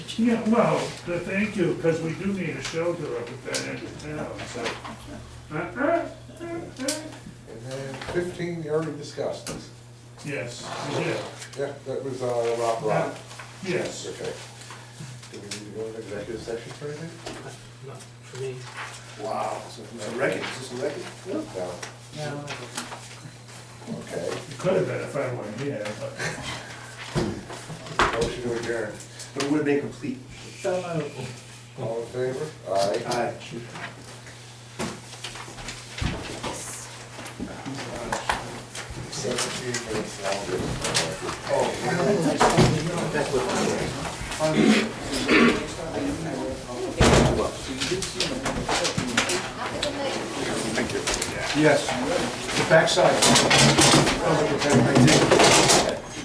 Yeah, well, th- thank you, because we do need a shelter up at that end of town, so. Uh, uh, uh, uh. And then fifteen, you already discussed this. Yes, we did. Yeah, that was, uh, Rob Rock. Yes. Okay. Do we need to go into executive session for anything? Not for me. Wow, so It's a record, is this a record? No, No. okay. It could have been if I weren't here, but Motion to adjourn. But it would have been complete. So moved. All in favor? Aye. Aye. Seventeen minutes longer. Yes, the backside. I did.